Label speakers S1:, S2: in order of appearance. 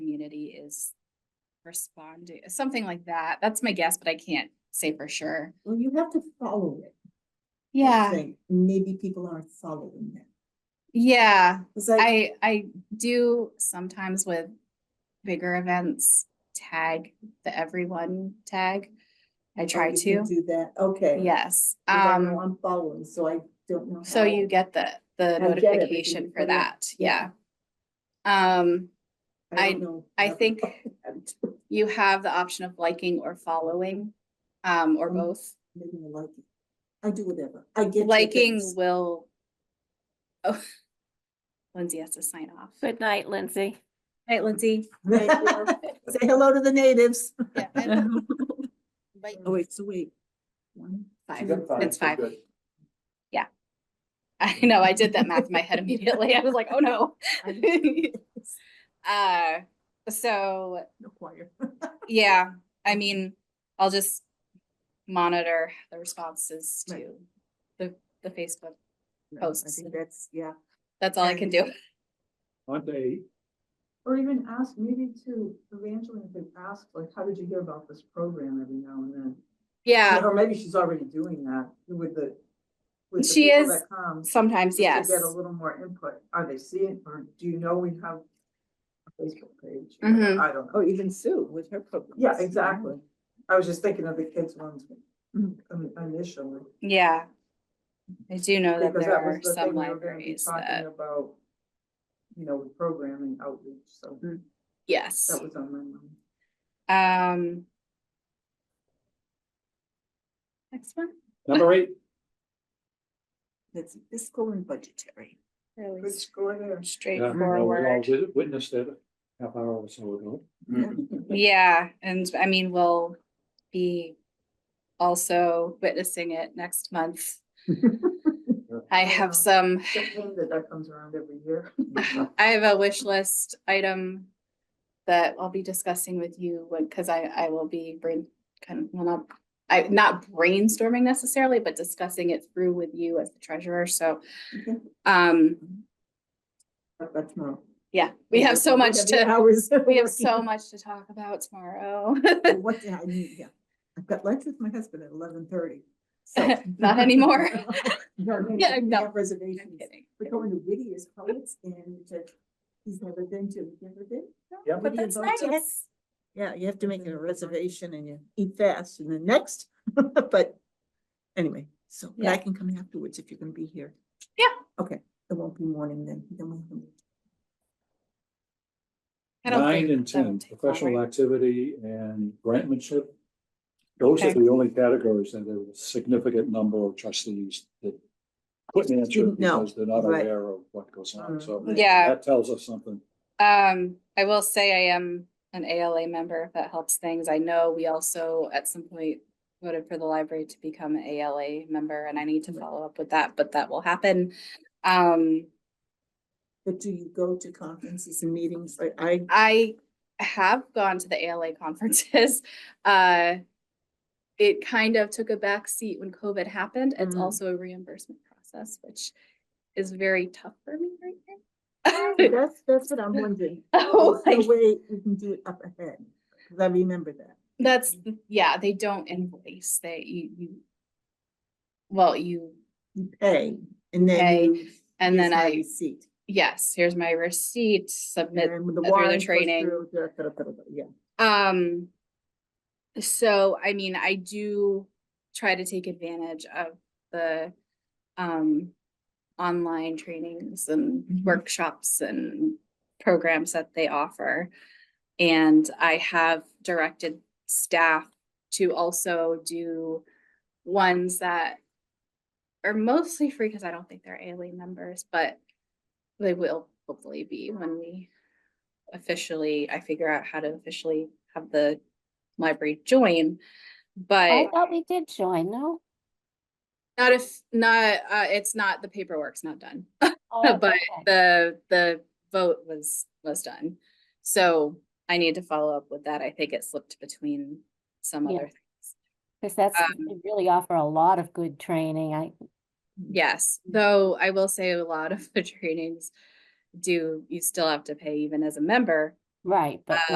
S1: is responding, something like that. That's my guess, but I can't say for sure.
S2: Well, you have to follow it. I
S1: Yeah,
S2: think. Maybe people aren't following that.
S1: yeah.
S2: It's like, "Oh,
S1: I I do sometimes with bigger events tag the everyone tag. I
S2: oh,
S1: try
S2: you
S1: to.
S2: can Do that, okay.
S1: Yes.
S2: But I
S1: Um
S2: know I'm following, so I don't know.
S1: so
S2: how-
S1: you get the the
S2: get everything
S1: notification
S2: you
S1: for
S2: put in.
S1: that. Yeah. Um I-
S2: don't know
S1: I
S2: how to
S1: think-
S2: follow that.
S1: you have the option of liking or following um or
S2: Mm.
S1: both.
S2: Maybe I like it. I do whatever. I get. your
S1: Liking
S2: things.
S1: will Oh Lindsay has to sign off.
S3: Good night, Lindsay.
S1: Right, Lindsay.
S2: Say hello to the natives.
S1: Yeah. Bye.
S2: Oh, wait, so wait. One,
S1: Five.
S4: She's at five,
S1: It's
S4: so
S1: five.
S4: good.
S1: I know, I did that math in my head immediately. I was like, oh no. Uh, so,
S2: no choir.
S1: yeah, I mean, I'll just monitor the responses
S2: Right.
S1: to the, the Facebook.
S2: No, I
S1: Posts.
S2: think that's, yeah.
S1: That's all I
S2: Right.
S1: can do.
S4: Aren't they?
S5: Or even ask, maybe to Evangeline can ask, like, how did you hear about this program every now and then?
S1: Yeah,
S5: Or maybe she's already doing that with the. with the
S1: She
S5: people
S1: is-
S5: that come, just
S1: sometimes,
S5: to
S1: yes.
S5: Get a little more input. Are they seeing, or do you know we have a Facebook page?
S1: Mhm.
S5: I don't know.
S2: Or even Sue with her program.
S5: Yeah, exactly. I was just thinking of the kids ones um, initially.
S1: Yeah. I do know that
S5: Because
S1: there
S5: that was
S1: are
S5: the
S1: some
S5: thing we were gonna be
S1: libraries
S5: talking
S1: that,
S5: about. You know, with programming outreach, so
S1: yes.
S5: that was on my mind.
S1: Um. Next one.
S4: Number eight,
S2: That's fiscal and budgetary.
S1: Really
S5: Good score there.
S4: Yeah, well, we all
S1: straightforward.
S4: did- witnessed it a half hour or so ago.
S1: Mm-hmm. Yeah, and I mean, we'll be also witnessing it next month. I
S5: Yeah.
S1: have some,
S5: Good thing that that comes around every year.
S1: I have a wish list item that I'll be discussing with you, because I, I will be brain, kind of, well, not, I, not brainstorming necessarily, but discussing it through with you as the treasurer, so.
S2: Okay.
S1: Um,
S2: Talk about tomorrow.
S1: yeah, we have so much
S2: Eight
S1: to,
S2: hours.
S1: we have so much to talk about tomorrow.
S2: Well, What did I need? Yeah. I've got lunch with my husband at eleven thirty.
S1: Not anymore. Yeah, no, I'm
S2: Reservations.
S1: kidding.
S2: We're going to Whittier's Poets and to, he's never been to, you never been?
S4: Yeah.
S2: Whittier Poets? Yeah, you have to make a reservation and you eat fast and then next, but anyway, so, but I
S1: Yeah.
S2: can come afterwards if you're gonna be here.
S1: Yeah.
S2: Okay, it won't be morning then, then we'll. have a meeting.
S1: I don't
S4: Nine
S1: think
S4: and
S1: that would
S4: ten,
S1: take long,
S4: professional
S1: right?
S4: activity and grantmanship. Those are
S1: Okay.
S4: the only categories that there was a significant number of trustees that couldn't answer
S2: Didn't know,
S4: because they're not
S2: right. Mm-hmm.
S4: aware of what goes on, so.
S5: Mm.
S1: Yeah.
S4: That tells us something.
S1: Um, I will say I am an ALA member, if that helps things. I know we also at some point voted for the library to become an ALA member and I need to
S2: Right.
S1: follow up with that, but that will happen. Um,
S2: But do you go to conferences and meetings? Like I,
S1: I have gone to the ALA conferences. Uh, it kind of took a backseat when COVID happened. It's
S2: Mm.
S1: also a reimbursement process, which is very tough for me right
S2: Oh,
S1: now.
S2: that's, that's what I'm wondering.
S1: Oh,
S2: Is there a
S1: like-
S2: way we can do it up ahead, cause I remember that.
S1: That's, the- yeah, they don't invoice, they, you, you. Well, you,
S2: You pay and then.
S1: Pay,
S2: you
S1: and then
S2: use my
S1: I-
S2: Receipt.
S1: yes, here's my receipt, submit,
S2: and the
S1: through the
S2: warrant goes
S1: training.
S2: through, da- da- da- da- da- Yeah.
S1: um. So, I mean, I do try to take advantage of the, um. Online trainings and
S2: Mhm.
S1: workshops and programs that they offer. And I have directed staff to also do ones that are mostly free because I don't think they're ALA members, but they will hopefully be when we officially, I figure out how to officially have the library join.
S3: I
S1: But
S3: thought we did join, no?
S1: not if, not, uh, it's not, the paperwork's not done.
S3: Oh,
S1: But
S3: okay.
S1: the the vote was was done. So I need to follow up with that. I think it slipped between some
S3: Yeah.
S1: other, things.
S3: Cause that's,
S1: um,
S3: they really offer a lot of good training. I,
S1: yes, though I will say a lot of the trainings do, you still have to pay even as a member. uh,
S3: right, but.